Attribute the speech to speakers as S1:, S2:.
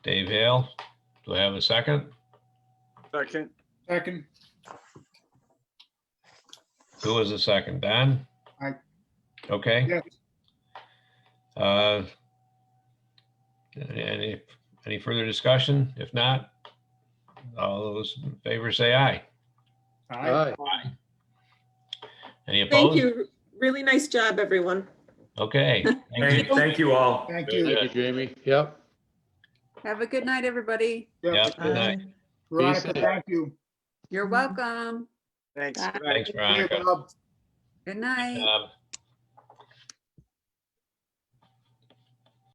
S1: Dave Hale. Do I have a second?
S2: Second,
S3: Second,
S1: Who was the second? Don?
S3: Aye.
S1: Okay.
S3: yes,
S1: uh, Any, any further discussion? If not, all those in favor say aye.
S3: aye,
S1: Any opposed?
S4: Thank you. Really nice job, everyone.
S1: Okay.
S5: Thank, thank you all.
S3: thank
S1: Very
S3: you.
S1: good.
S6: Thank you, Jamie. Yep.
S7: Have a good night, everybody.
S1: Yeah,
S3: Yep.
S1: good night.
S3: Veronica,
S6: Peace.
S3: thank you.
S7: You're welcome.
S2: thanks.
S7: Bye.
S1: Thanks,
S3: Hey,
S1: Veronica.
S3: Bob.
S7: Good night.
S1: Um,